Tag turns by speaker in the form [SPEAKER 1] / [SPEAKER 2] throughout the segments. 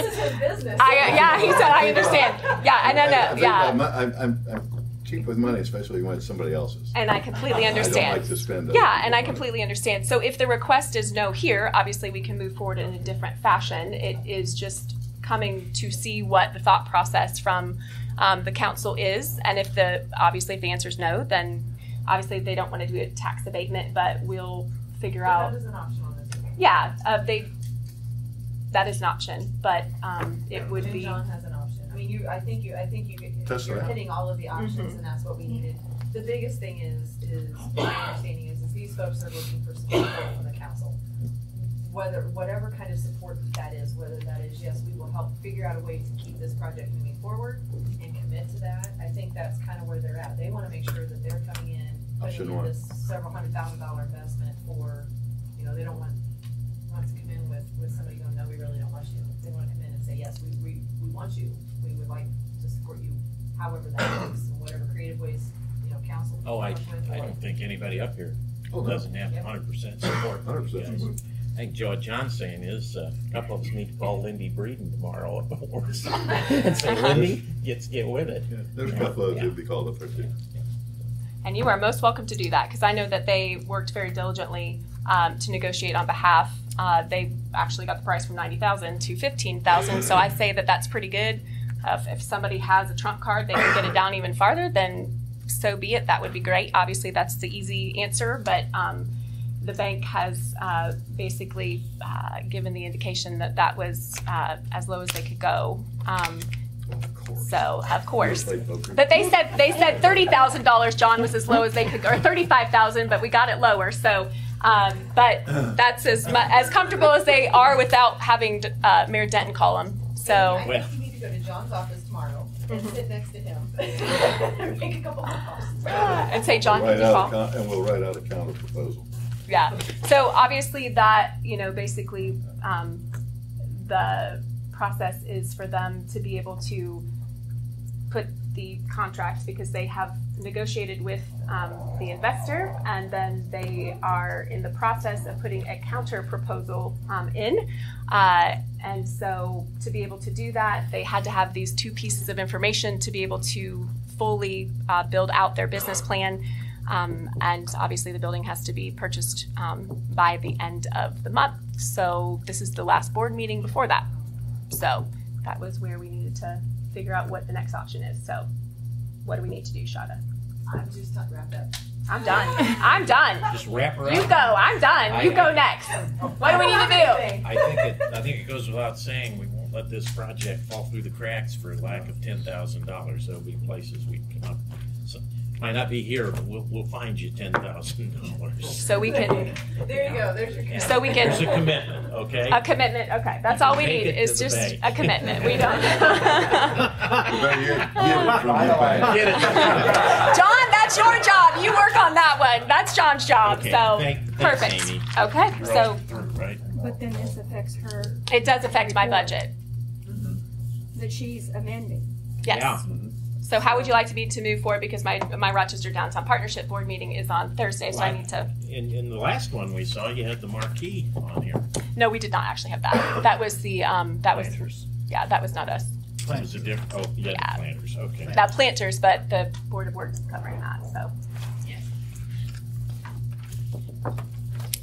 [SPEAKER 1] business.
[SPEAKER 2] I, uh, yeah, he said, I understand. Yeah, and then,
[SPEAKER 3] I- I
[SPEAKER 2] uh,
[SPEAKER 3] think I'm,
[SPEAKER 2] yeah.
[SPEAKER 3] I'm, I'm- I'm cheap with money, especially when it's somebody else's.
[SPEAKER 2] And I completely
[SPEAKER 3] I don't
[SPEAKER 2] understand.
[SPEAKER 3] like to spend other
[SPEAKER 2] Yeah, and I
[SPEAKER 3] people's money.
[SPEAKER 2] completely understand. So if the request is no here, obviously we can move forward in a different fashion. It is just coming to see what the thought process from um, the council is, and if the, obviously if the answer is no, then obviously they don't want to do a tax abatement, but we'll figure out.
[SPEAKER 1] That is an option on this.
[SPEAKER 2] Yeah, uh, they, that is an option, but, um, it would
[SPEAKER 1] And
[SPEAKER 2] be,
[SPEAKER 1] John has an option. I mean, you, I think you, I think you, could-
[SPEAKER 3] That's
[SPEAKER 1] you're
[SPEAKER 3] right.
[SPEAKER 1] hitting all of the options
[SPEAKER 2] Mm-hmm.
[SPEAKER 1] and that's what we needed. The biggest thing is, is, my understanding is, is these folks are looking for support from the council. Whether, whatever kind of support that is, whether that is, yes, we will help figure out a way to keep this project moving forward and commit to that. I think that's kind of where they're at. They want to make sure that they're coming in, putting
[SPEAKER 3] Option
[SPEAKER 1] in
[SPEAKER 3] one.
[SPEAKER 1] this several hundred thousand dollar investment for, you know, they don't want wants to come in with, with somebody going, no, we really don't want you. They want to come in and say, yes, we, we, we want you, we would like to support you, however that works, and whatever creative ways, you know, council. can
[SPEAKER 4] Oh, I,
[SPEAKER 1] come up with,
[SPEAKER 4] I
[SPEAKER 1] or-
[SPEAKER 4] don't think anybody up here
[SPEAKER 3] Oh, no.
[SPEAKER 4] doesn't have hundred percent support. from you
[SPEAKER 3] 100%.
[SPEAKER 4] guys. I think Joe, John's saying is, uh, a couple of us need to call Lindy Breeden tomorrow up at Warsaw and say, Lindy, get, get with it.
[SPEAKER 3] Yeah, There's a couple of,
[SPEAKER 4] Yeah.
[SPEAKER 3] it'd be called up there too.
[SPEAKER 2] and you are most welcome to do that, because I know that they worked very diligently, um, to negotiate on behalf. Uh, they actually got the price from ninety thousand to fifteen thousand, so I say that that's pretty good. Uh, if- if somebody has a trump card, they can get it down even farther, then so be it, that would be great. Obviously, that's the easy answer, but, um, the bank has, uh, basically, uh, given the indication that that was, uh, as low as they could go. Um,
[SPEAKER 3] Of course.
[SPEAKER 2] So of course,
[SPEAKER 3] Play poker.
[SPEAKER 2] but they said they said thirty thousand dollars. John was as low as they could, or thirty-five thousand, but we got it lower. So, um, but that's as mu- as comfortable as they are without having uh, Mayor Denton call them. So Mm-hmm.
[SPEAKER 1] I think you need to go to John's office tomorrow and sit next to him. Make a couple of calls.
[SPEAKER 2] and say, John,
[SPEAKER 3] Write
[SPEAKER 2] can you
[SPEAKER 3] out a
[SPEAKER 2] call?
[SPEAKER 3] con- And we'll write out a counter proposal.
[SPEAKER 2] Yeah. So obviously that, you know, basically um, the process is for them to be able to put the contract because they have negotiated with um, the investor and then they are in the process of putting a counter proposal um, in. Uh, and so to be able to do that, they had to have these two pieces of information to be able to fully uh, build out their business plan. Um, and obviously, the building has to be purchased um, by the end of the month. So this is the last board meeting before that. So that was where we needed to figure out what the next option is. So what do we need to do, Shada?
[SPEAKER 1] I'm just not wrapped up.
[SPEAKER 2] I'm done. I'm done.
[SPEAKER 4] Just wrap her
[SPEAKER 2] You
[SPEAKER 4] up.
[SPEAKER 2] go. I'm done. You go next. What do we need to
[SPEAKER 1] Anything.
[SPEAKER 4] I think it, I think it goes without saying, we won't let this project fall through the cracks for lack of ten thousand dollars. There'll be places we can come up, so, might not be here, but we'll, we'll find you ten thousand
[SPEAKER 2] do?
[SPEAKER 4] dollars.
[SPEAKER 2] So we can.
[SPEAKER 1] There you go, there's your. count.
[SPEAKER 2] So we can-
[SPEAKER 4] There's a commitment, okay?
[SPEAKER 2] A commitment. Okay, that's all we
[SPEAKER 4] Take
[SPEAKER 2] need
[SPEAKER 4] it
[SPEAKER 2] is
[SPEAKER 4] to the
[SPEAKER 2] just
[SPEAKER 4] bank.
[SPEAKER 2] a commitment. We don't.
[SPEAKER 3] You better get- get it from your bank.
[SPEAKER 4] Get it.
[SPEAKER 2] John, that's your job. You work on that one. That's John's job.
[SPEAKER 4] Okay,
[SPEAKER 2] so
[SPEAKER 4] thank- thanks,
[SPEAKER 2] perfect.
[SPEAKER 4] Amy.
[SPEAKER 2] Okay,
[SPEAKER 4] We're all
[SPEAKER 2] so
[SPEAKER 4] through, Right?
[SPEAKER 5] But then this affects her,
[SPEAKER 2] it does affect my budget.
[SPEAKER 5] that she's amending.
[SPEAKER 2] Yes.
[SPEAKER 4] Yeah.
[SPEAKER 2] So how would you like to be to move forward? Because my my Rochester Downtown Partnership Board meeting is on Thursday, so I need to.
[SPEAKER 4] In, in the last one we saw, you had the marquee on here.
[SPEAKER 2] No, we did not actually have that. That was the um that was
[SPEAKER 4] Planters.
[SPEAKER 2] yeah that was not us.
[SPEAKER 4] It was a different, oh, yeah,
[SPEAKER 2] Yeah.
[SPEAKER 4] the planters, okay.
[SPEAKER 2] Not planters, but the board of works is covering that. So.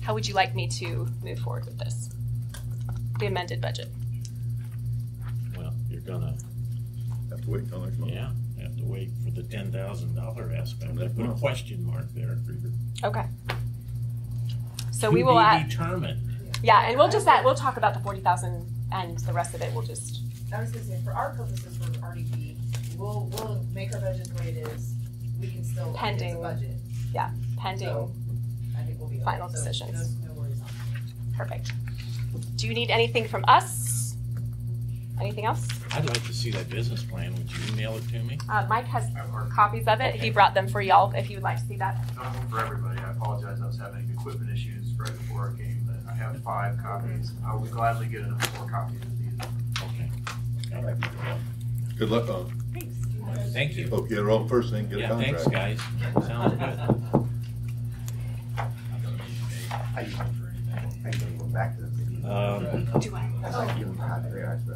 [SPEAKER 2] How would you like me to move forward with this? The amended budget.
[SPEAKER 4] Well, you're gonna,
[SPEAKER 3] Have to wait till next month.
[SPEAKER 4] yeah, have to wait for the ten thousand dollar aspect. I put a question mark there for your.
[SPEAKER 2] Okay. So
[SPEAKER 4] to
[SPEAKER 2] we will
[SPEAKER 4] be
[SPEAKER 2] add,
[SPEAKER 4] Determined.
[SPEAKER 2] yeah, and we'll just add, we'll talk about the forty thousand and the rest of it, we'll just,
[SPEAKER 1] I was gonna say, for our purposes for RDP, we'll, we'll make our budget the way it is, we can still. it's a
[SPEAKER 2] Pending.
[SPEAKER 1] Budget,
[SPEAKER 2] pending,
[SPEAKER 1] so I think we'll be. okay.
[SPEAKER 2] Final
[SPEAKER 1] So, no-
[SPEAKER 2] decisions.
[SPEAKER 1] No worries on that.
[SPEAKER 2] perfect. Do you need anything from us? Anything else?
[SPEAKER 4] I'd like to see that business plan. Would you email it to me?
[SPEAKER 2] Uh, Mike has
[SPEAKER 6] That worked.
[SPEAKER 2] copies of it, he brought them for y'all, if you would like to see that.
[SPEAKER 6] Not one for everybody. I apologize. I was having equipment issues right before I came, but I have five copies. I will gladly get another four copies of these.
[SPEAKER 4] Okay.
[SPEAKER 3] Good luck on,
[SPEAKER 4] Thank you.
[SPEAKER 3] uh, hope you're on first thing, get a
[SPEAKER 4] Yeah, thanks,
[SPEAKER 3] contract.
[SPEAKER 4] guys. Sounds good. Um,